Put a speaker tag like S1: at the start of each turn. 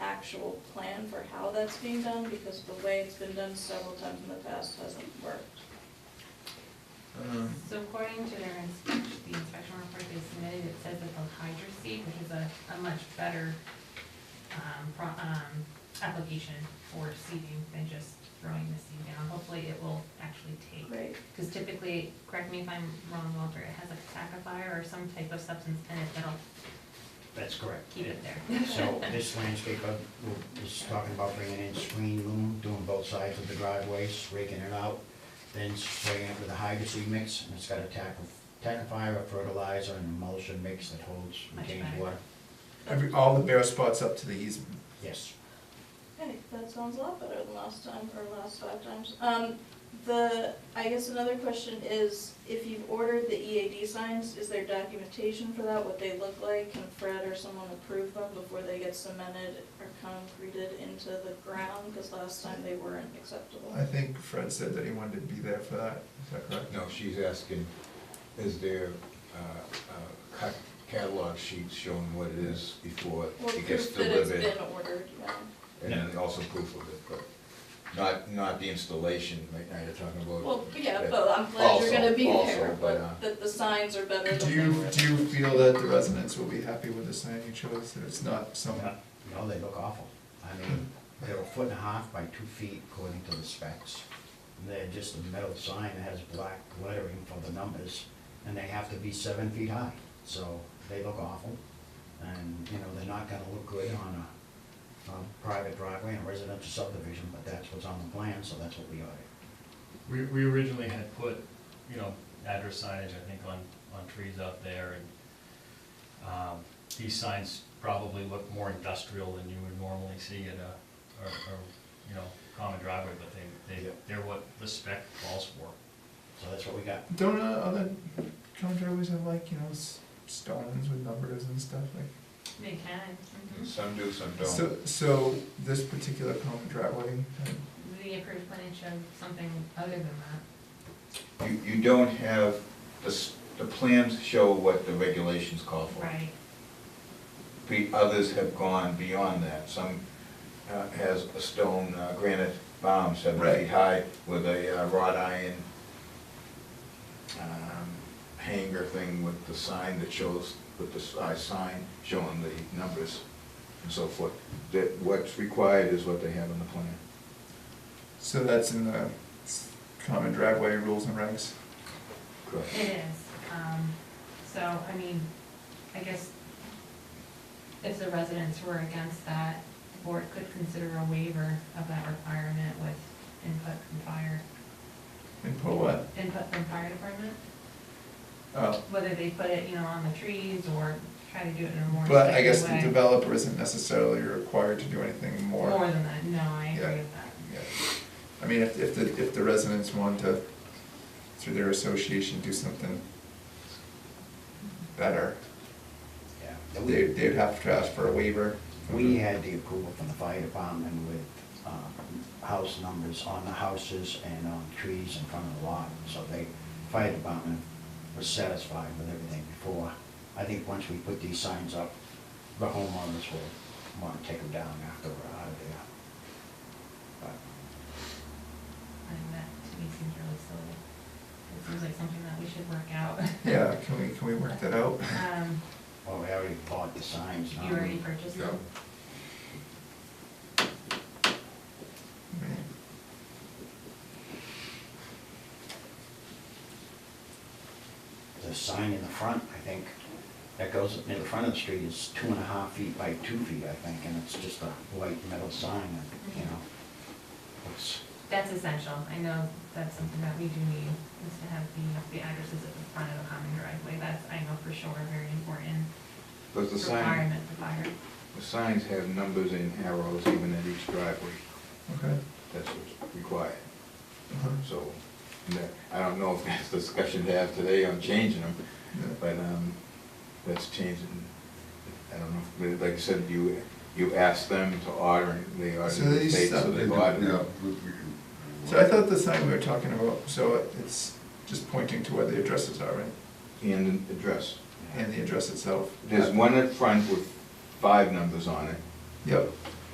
S1: actual plan for how that's being done, because the way it's been done several times in the past hasn't worked.
S2: Uh,
S3: So according to their inspection, the inspection report they submitted, it says that the hydro seed, which is a, a much better, um, pro, um, application for seeding than just throwing the seed down. Hopefully it will actually take,
S1: Great.
S3: because typically, correct me if I'm wrong, Walter, it has a tackifier or some type of substance in it that'll
S4: That's correct.
S3: keep it there.
S4: So this landscaper will- is talking about bringing in screen loom, doing both sides of the driveways, raking it out, then spraying it with a hydroseed mix, and it's got a tack of, tackifier, a fertilizer, and emulsion mix that holds,
S3: Much
S4: retains
S3: better.
S4: water.
S2: Every, all the bare spots up to the easement.
S4: Yes.
S1: Okay, that sounds a lot better than last time, or last five times. Um, the, I guess another question is, if you've ordered the EAD signs, is there documentation for that, what they look like? Can Fred or someone approve them before they get cemented or concreted into the ground? Because last time they weren't acceptable.
S2: I think Fred said that he wanted to be there for that, is that correct?
S5: No, she's asking, is there uh, uh, cut catalog sheets showing what it is before
S1: Well,
S5: it gets
S1: proof that it's
S5: delivered?
S1: been ordered, yeah.
S5: And then also proof of it, but not, not the installation, right now you're talking about.
S1: Well, yeah, but I'm glad you're
S5: Also-
S1: gonna be
S5: also,
S1: there,
S5: but, uh,
S1: but that the signs are better
S2: Do
S1: than they
S2: you,
S1: were.
S2: do you feel that the residents will be happy with the sign you chose, that it's not some,
S4: No, they look awful. I mean, they're a foot and a half by two feet according to the specs. And They're just a metal sign that has black lettering for the numbers, and they have to be seven feet high. So they look awful, and, you know, they're not gonna look good on a, a private driveway and residential subdivision, but that's what's on the plan, so that's what we ordered.
S6: We, we originally had put, you know, address signage, I think, on, on trees out there, and, um, these signs probably look more industrial than you would normally see at a, or, or, you know, common driveway, but they, they,
S4: Yeah.
S6: they're what the spec calls for.
S4: So that's what we got.
S2: don't uh, other common driveways have like, you know, s- stones with numbers and stuff like?
S3: They can. mhm.
S5: Mm-hmm. Some do, some
S2: So,
S5: don't.
S2: so this particular common driveway, uh,
S3: The approved plan showed something other than that.
S5: You, you don't have, the, s- the plans show what the regulations call for.
S3: Right.
S5: Be- Others have gone beyond that. Some uh, has a stone uh, granite bomb seven
S2: Right.
S5: feet high with a uh, wrought iron um, hanger thing with the sign that shows, with the size sign showing the numbers and so forth. That what's required is what they have in the plan.
S2: so that's in the s- common driveway rules and regs?
S3: It is, um, so, I mean, I guess if the residents were against that, the board could consider a waiver of that requirement with input from fire,
S2: And put what?
S3: input from fire department,
S2: Oh,
S3: whether they put it, you know, on the trees or try to do it in a more effective way.
S2: but I guess the developer isn't necessarily required to do anything more.
S3: More than that, no, I
S2: Yeah.
S3: agree with that.
S2: Yeah. I mean, if, if the, if the residents want to, through their association, do something better,
S4: Yeah. And we-
S2: they, they'd have to ask for a waiver.
S4: We had the approval from the fire department with um, house numbers on the houses and on trees in front of the lot. So they, fire department was satisfied with everything before. I think once we put these signs up, the homeowners will want to take them down after we're out of there. But
S3: I think that to me seems really silly. It seems like something that we should work out.
S2: Yeah, can we, can we work that out?
S3: Um,
S4: Well, we already bought the signs. now.
S3: you already purchased them?
S2: I mean,
S4: The sign in the front, I think, that goes in the front of the street is two and a half feet by two feet, I think, and it's just a white metal sign, and, you know. it's-
S3: That's essential. I know that's something that we do need, is to have the, the addresses at the front of the common driveway. That's, I know for sure, very important
S5: Does the sign,
S3: requirement for fire.
S5: the signs have numbers and arrows even at each driveway.
S2: Okay.
S5: That's what's required.
S2: Uh-huh.
S5: So, and that- I don't know if that's the discussion to have today on changing them,
S2: Yeah.
S5: but um, that's changing. I don't know, but like I said, you, you asked them to order, and they ordered
S2: So they
S5: the state, so
S2: stopped
S5: they
S2: it,
S5: ordered.
S7: Yeah.
S5: it.
S2: So I thought the sign we were talking about, so it's just pointing to where the addresses are, right?
S5: And the address.
S2: And the address itself.
S5: There's one at front with five numbers on it,
S2: Yep,